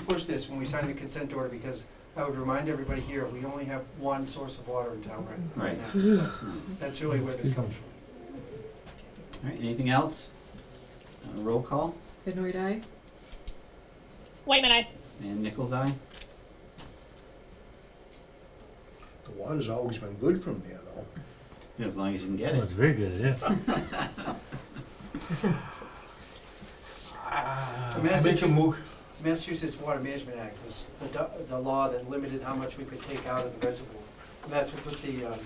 push this when we sign the consent order, because I would remind everybody here, we only have one source of water in town right, right now. So That's really where this comes from. All right, anything else? Uh, Roll call, Benoit eye? Wait a minute. and Nichols' eye? The water's always been good from there, though. As long as you can get Well, Oh, it's it. very good, yeah. Ah, The Massachusetts, Massachusetts Water Management Act was the, do- the law that limited how much we could take out of the reservoir. And that's what put the um,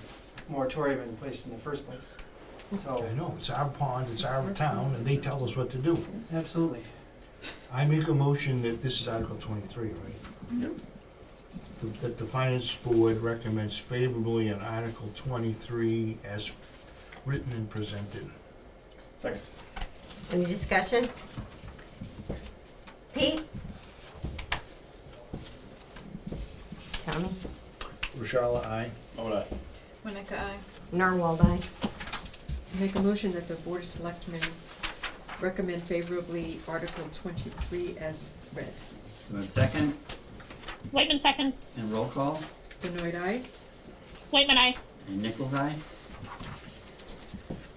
moratorium in place in the first place. So, I know, it's our pond, it's our town, and they tell us what to do. absolutely. I make a motion that, this is Article twenty-three, right? Yep. That- That the finance board recommends favorably on Article twenty-three as written and presented. Second. Any discussion? Pete? Tommy? Rashala, aye? Winika eye. Narwhal, aye. Make a motion that the Board of Selectmen recommend favorably Article twenty-three as read. So a second, Wait a minute seconds. and roll call, Benoit eye? Wait a minute. and Nichols' eye?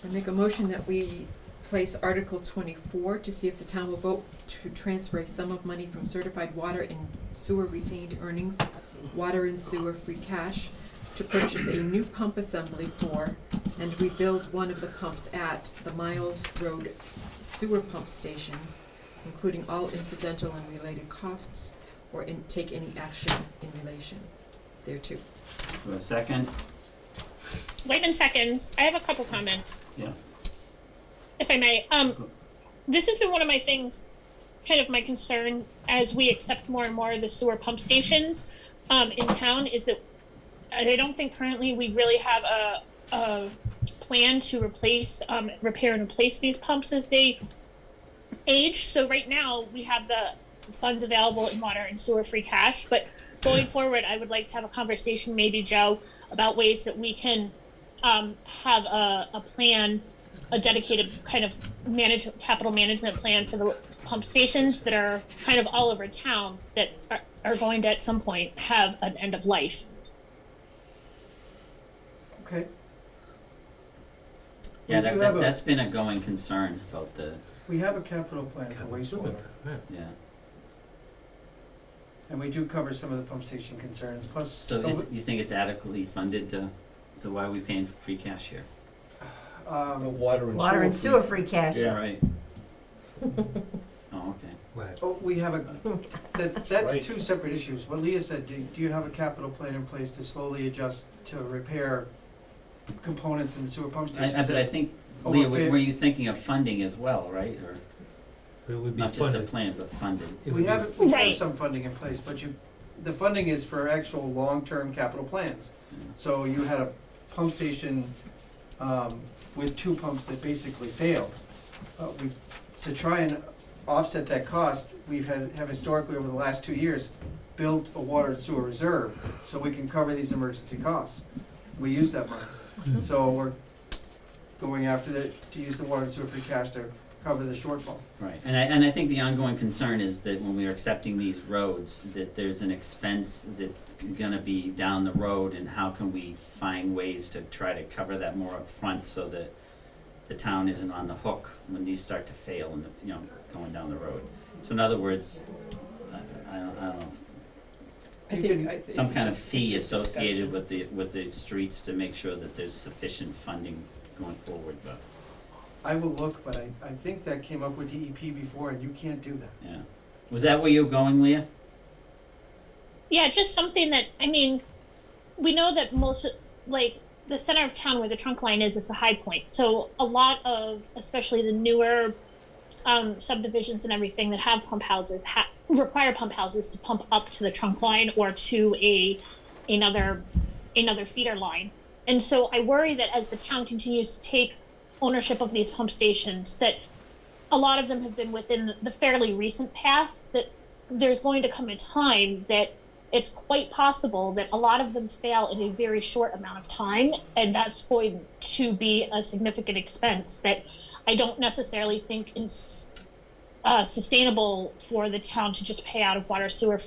I make a motion that we place Article twenty-four to see if the town will vote to transfer a sum of money from certified water and sewer retained earnings, water and sewer free cash, to purchase a new pump assembly for and rebuild one of the pumps at the Miles Road Sewer Pump Station, including all incidental and related costs, or in, take any action in relation thereto. So a second, Wait a minute seconds. I have a couple comments. Yeah. If I may, um, this has been one of my things, kind of my concern as we accept more and more of the sewer pump stations um, in town is that I don't think currently we really have a, a plan to replace, um, repair and replace these pumps as they age. So right now we have the funds available in water and sewer free cash, but going forward, I would like to have a conversation, maybe Joe, about ways that we can um, have a, a plan, a dedicated kind of manage capital management plan for the pump stations that are kind of all over town that are, are going to at some point have an end of life. Okay. yeah, We that, do that, have a- that's been a going concern about the, We have a capital plan for wastewater, yeah. and we do cover some of the pump station concerns, plus. So it's, you think it's adequately funded to, so why are we paying for free cash here? The Um, water and sewer. Water and fee. sewer free cash. Yeah. Right. Oh, okay. Right. Oh, we have a, that, that's Right. two separate issues. What Leah said, do, do you have a capital plan in place to slowly adjust to repair components in sewer pump I, stations? I, but I think, Over Leah, were fif- were you thinking of funding as well, right, or It would be not just a funded. plan, but funded? It would We be- have, we have Right. some funding in place, but you, the funding is for actual long-term capital plans. Yeah. So you had a pump station, um, with two pumps that basically failed. Uh, we, to try and offset that cost, we've had, have historically over the last two years, built a water and sewer reserve, so we can cover these emergency costs. We use that money. Mhm. So we're going after the, to use the water and sewer free cash to cover the shortfall. Right, and I, and I think the ongoing concern is that when we are accepting these roads, that there's an expense that's gonna be down the road, and how can we find ways to try to cover that more upfront so that the town isn't on the hook when these start to fail and, the- you know, going down the road. So in other words, I, I don't, I don't know, I You think can- I- it's some kind of just- fee it's a associated discussion. with the, with the streets to make sure that there's sufficient funding going forward, but, I will look, but I, I think that came up with DEP before, and you can't do that. yeah. Was that where you were going, Leah? Yeah, just something that I mean, we know that most like the center of town where the trunk line is is the high point. So a lot of especially the newer um, subdivisions and everything that have pump houses ha- require pump houses to pump up to the trunk line or to a another another feeder line. And so I worry that as the town continues to take ownership of these pump stations, that a lot of them have been within the fairly recent past. That there's going to come a time that it's quite possible that a lot of them fail in a very short amount of time, and that's going to be a significant expense that I don't necessarily think is uh, sustainable for the town to just pay out of water sewer